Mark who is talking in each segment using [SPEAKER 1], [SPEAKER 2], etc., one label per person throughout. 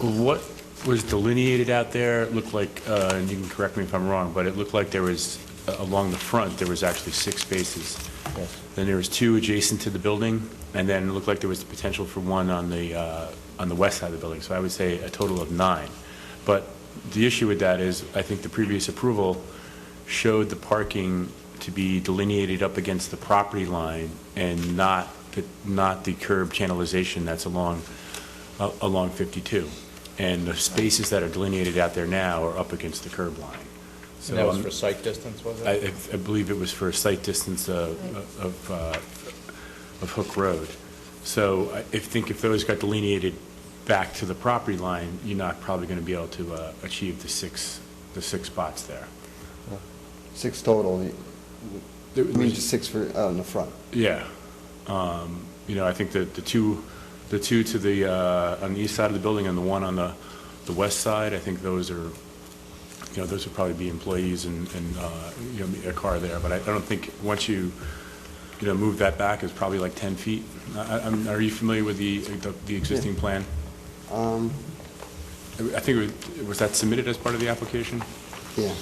[SPEAKER 1] What was delineated out there, it looked like, uh, and you can correct me if I'm wrong, but it looked like there was, uh, along the front, there was actually six spaces.
[SPEAKER 2] Yes.
[SPEAKER 1] Then there was two adjacent to the building, and then it looked like there was the potential for one on the, uh, on the west side of the building. So I would say a total of nine. But the issue with that is, I think the previous approval showed the parking to be delineated up against the property line and not, the- not the curb channelization that's along, uh, along 52. And the spaces that are delineated out there now are up against the curb line. So
[SPEAKER 2] And that was
[SPEAKER 1] I'm-
[SPEAKER 2] for site distance, was it?
[SPEAKER 1] I, I believe it was for a site distance uh, of, uh, of Hook Road. So I if- think if those got delineated back to the property line, you're not probably going to be able to uh, achieve the six, the six spots there.
[SPEAKER 3] Six total, you
[SPEAKER 1] There-
[SPEAKER 3] you mean just six for, out in the front?
[SPEAKER 1] Yeah. Um, You know, I think that the two, the two to the, uh, on the east side of the building and the one on the, the west side, I think those are, you know, those would probably be employees and, and, uh, you know, a car there, but I I don't think, once you, you know, move that back, it's probably like 10 feet. I- I- I'm- Are you familiar with the, the- the existing plan?
[SPEAKER 3] Um,
[SPEAKER 1] I I think, it was was that submitted as part of the application?
[SPEAKER 3] yeah,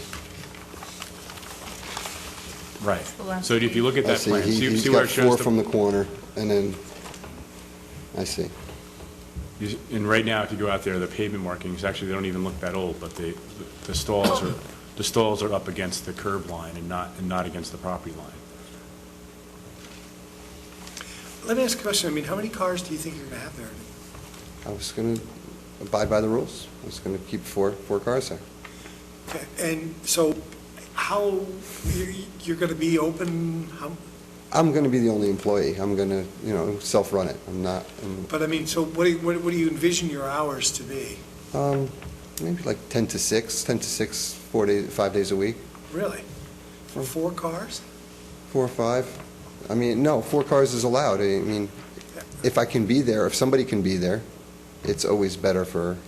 [SPEAKER 1] Right.
[SPEAKER 4] the last
[SPEAKER 1] So if you look at
[SPEAKER 3] I
[SPEAKER 1] that
[SPEAKER 3] see,
[SPEAKER 1] plan,
[SPEAKER 3] He-
[SPEAKER 1] see
[SPEAKER 3] he's
[SPEAKER 1] see where
[SPEAKER 3] got
[SPEAKER 1] it shows
[SPEAKER 3] four
[SPEAKER 1] the
[SPEAKER 3] from the corner, and then, I see,
[SPEAKER 1] You- And right now, if you go out there, the pavement markings, actually, they don't even look that old, but the, the stalls are, the stalls are up against the curb line and not, and not against the property line.
[SPEAKER 5] Let me ask a question. I mean, how many cars do you think you're going to have there?
[SPEAKER 3] I was going to abide by the rules, I was going to keep four, four cars there.
[SPEAKER 5] Okay, And so how, you're- you're going to be open, how,
[SPEAKER 3] I'm going to be the only employee, I'm going to, you know, self-run it, I'm not, I'm-
[SPEAKER 5] but I mean, so what do you, what what do you envision your hours to be?
[SPEAKER 3] um, maybe like 10 to 6, 10 to 6, four days, five days a week,
[SPEAKER 5] Really? For four cars?
[SPEAKER 3] four or five. I mean, no, four cars is allowed, I mean, if I can be there, if somebody can be there, it's always better for,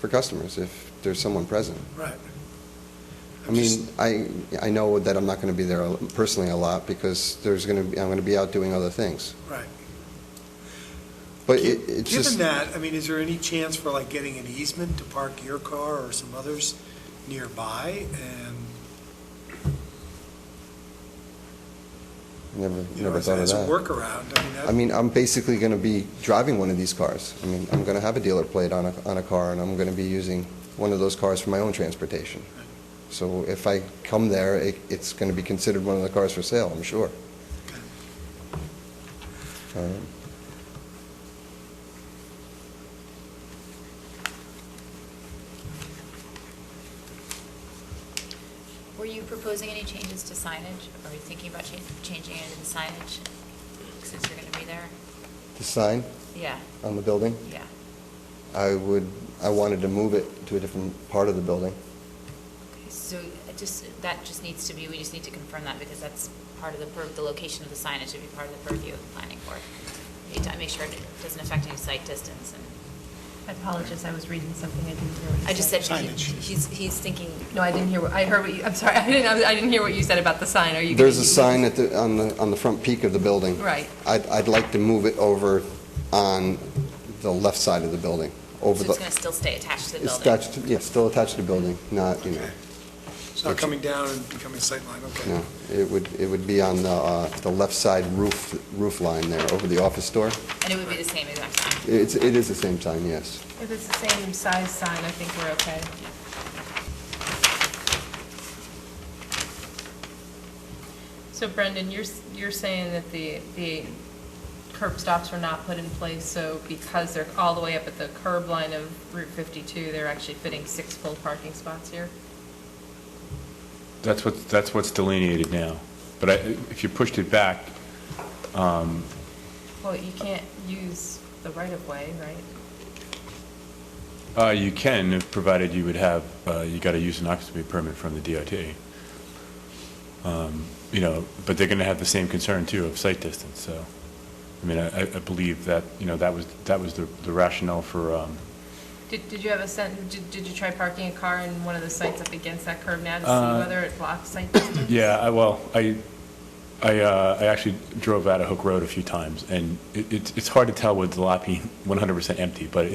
[SPEAKER 3] for customers if there's someone present.
[SPEAKER 5] Right.
[SPEAKER 3] I mean, I, I know that I'm not going to be there personally a lot because there's going to be, I'm going to be out doing other things.
[SPEAKER 5] Right.
[SPEAKER 3] But it, it's
[SPEAKER 5] Given
[SPEAKER 3] just,
[SPEAKER 5] that, I mean, is there any chance for like getting an easement to park your car or some others nearby? And,
[SPEAKER 3] never,
[SPEAKER 5] you know,
[SPEAKER 3] never
[SPEAKER 5] as
[SPEAKER 3] thought of
[SPEAKER 5] as a
[SPEAKER 3] that.
[SPEAKER 5] workaround, I mean,
[SPEAKER 3] I
[SPEAKER 5] that-
[SPEAKER 3] mean, I'm basically going to be driving one of these cars. I mean, I'm going to have a dealer plate on a, on a car and I'm going to be using one of those cars for my own transportation. So if I come there, it, it's going to be considered one of the cars for sale, I'm sure. All right.
[SPEAKER 4] Were you proposing any changes to signage, or are you thinking about chan- changing any of the signage, since you're going to be there?
[SPEAKER 3] The sign
[SPEAKER 4] Yeah,
[SPEAKER 3] on the building?
[SPEAKER 4] yeah.
[SPEAKER 3] I would, I wanted to move it to a different part of the building.
[SPEAKER 4] Okay, So it just, that just needs to be, we just need to confirm that, because that's part of the, pur- the location of the signage should be part of the purview of the planning board. We Need to make sure it doesn't affect any site distance, and
[SPEAKER 6] I apologize, I was reading something, I didn't hear what you said.
[SPEAKER 4] I just said, he-
[SPEAKER 5] Signage.
[SPEAKER 4] he's, he's thinking,
[SPEAKER 6] No, I didn't hear, what I heard what you, I'm sorry, I didn't, I didn't hear what you said about the sign, are you?
[SPEAKER 3] There's a
[SPEAKER 6] gonna-
[SPEAKER 3] sign at the, on the, on the front peak of the building.
[SPEAKER 6] Right.
[SPEAKER 3] I'd, I'd like to move it over on the left side of the building,
[SPEAKER 4] so
[SPEAKER 3] over
[SPEAKER 4] it's
[SPEAKER 3] the.
[SPEAKER 4] going to still stay attached to the
[SPEAKER 3] It's
[SPEAKER 4] building.
[SPEAKER 3] attached, to- yeah, still attached to the building, not, you know,
[SPEAKER 5] it's not coming down and becoming sightline, okay.
[SPEAKER 3] no. It would, it would be on the, uh, the left side roof, roof line there, over the office door.
[SPEAKER 4] And it would be the same exact sign.
[SPEAKER 3] It's, it is the same sign, yes.
[SPEAKER 6] If it's the same size sign, I think we're okay. So Brendan, you're, s- you're saying that the, the curb stops were not put in place, so because they're all the way up at the curb line of Route 52, they're actually fitting six full parking spots here?
[SPEAKER 1] That's what, that's what's delineated now. But I, if you pushed it back,
[SPEAKER 6] Well, you can't use the right-of-way, right?
[SPEAKER 1] uh, you can, provided you would have, uh, you got to use an occupancy permit from the DOT. Um, You know, but they're going to have the same concern too of site distance, so. I mean, I, I I believe that, you know, that was, that was the the rationale for, um,
[SPEAKER 6] Did, did you have a sentence, did, did you try parking a car in one of the sites up against that curb now to
[SPEAKER 1] Uh,
[SPEAKER 6] see whether it blocks site distance?
[SPEAKER 1] Yeah, I, well, I, I, uh, I actually drove out of Hook Road a few times, and it, it's, it's hard to tell with the lot being one hundred percent empty, but